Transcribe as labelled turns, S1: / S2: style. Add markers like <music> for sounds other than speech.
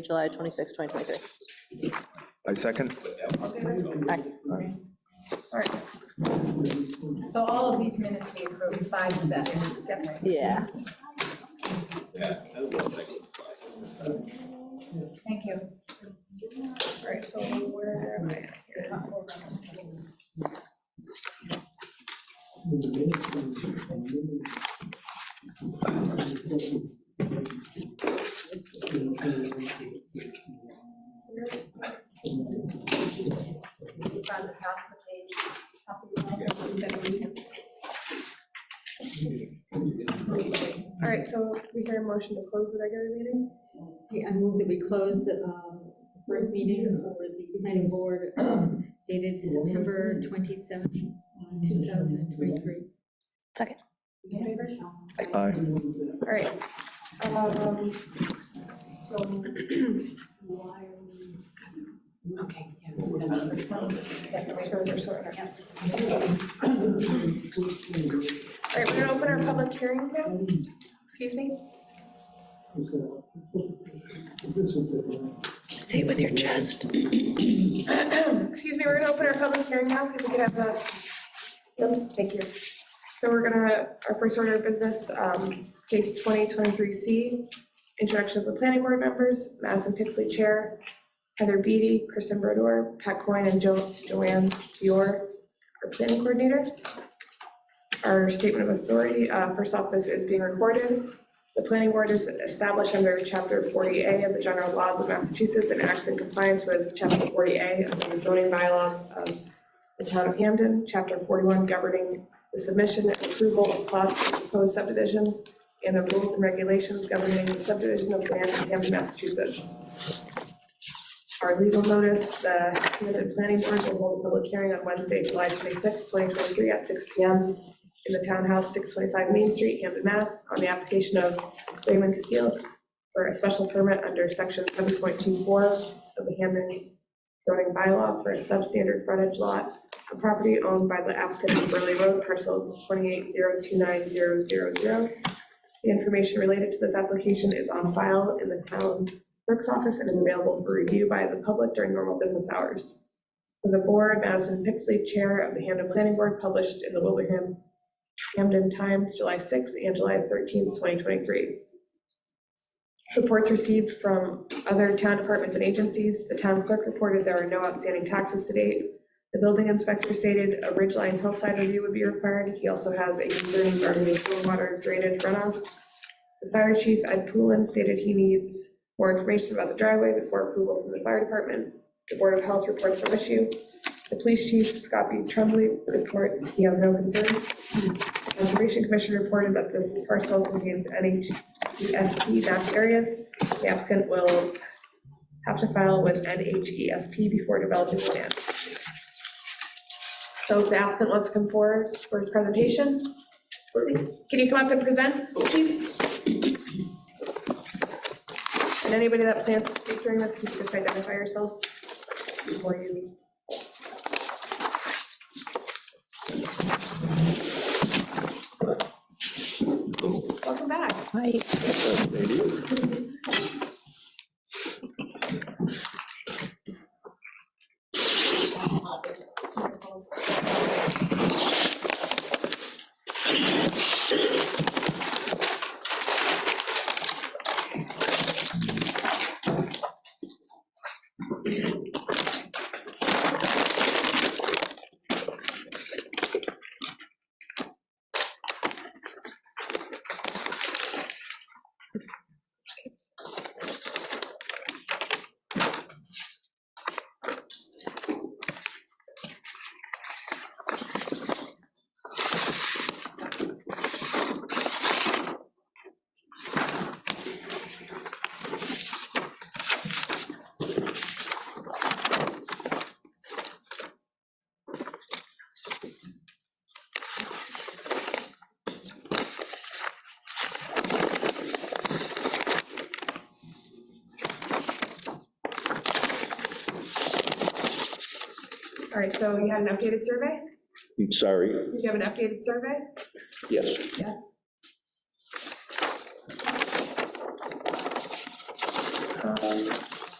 S1: July 26, 2023.
S2: I second.
S3: So all of these minutes we approved, five sets, definitely.
S1: Yeah.
S3: Thank you. All right, so where am I at here? Not over on this one. Where is this? It's on the top of the page. top of the page, that we can- All right, so we hear a motion to close the regular meeting?
S4: Okay, I move that we close the um, first meeting for the planning board <clears throat> um, dated September uh, 27, 2023.
S1: Second.
S3: All in favor?
S2: Aye.
S3: All right. Um, So why are we?
S4: Okay,
S3: That's the way we're doing it, sort of, yeah. All right, we're gonna open our public hearing now. Excuse me?
S1: Say it with your chest.
S3: Excuse me, we're gonna open our public hearing now, if we could have a. Yep, thank you. So we're gonna, our first order of business, um, case 2023C, introduction of the planning board members, Madison Pixley Chair, Heather Beatty, Kristen Brodor, Pat Coyne, and Jo- Joanne Fior, our planning coordinator. Our statement of authority, uh, first off, this is being recorded. The planning board is established under Chapter 40A of the general laws of Massachusetts and acts in compliance with Chapter 40A of the zoning bylaws of the town of Hamden, Chapter 41 governing the submission and approval of plots of proposed subdivisions, and the rules and regulations governing the subdivision of land in Hamden, Massachusetts. Our legal notice, the Hamden Planning Board will hold a public hearing on Wednesday, July 26, 2023, at 6 PM in the townhouse, 625 Main Street, Hampton, Mass, on the application of Raymond Casillas for a special permit under section 7.24 of the Hampton zoning bylaw for a substandard frontage lot, a property owned by the applicant on Burley Road, parcel 280290000. The information related to this application is on file in the town clerk's office and is available for review by the public during normal business hours. For the board, Madison Pixley, Chair of the Hampton Planning Board, published in the Wilbraham Camden Times, July 6th and July 13th, 2023. Reports received from other town departments and agencies. The town clerk reported there are no outstanding taxes to date. The building inspector stated a ridgeline hillside review would be required. He also has a concern regarding the stormwater drainage runoff. The fire chief, Ed Poulin, stated he needs more information about the driveway before approval from the fire department. The Board of Health reports no issue. The police chief, Scott B. Tremblay, reports he has no concerns. Conservation Commission reported that this parcel contains E NHESP mapped areas. The applicant will have to file with NHESP before developing the land. So if the applicant wants to come forward for his presentation, can you come up and present, please? And anybody that plans to speak during this, can you just identify yourself before you? Welcome back. All right, so you had an updated survey?
S5: I'm sorry,
S3: Did you have an updated survey?
S5: yes.
S3: Yeah.
S2: Aye.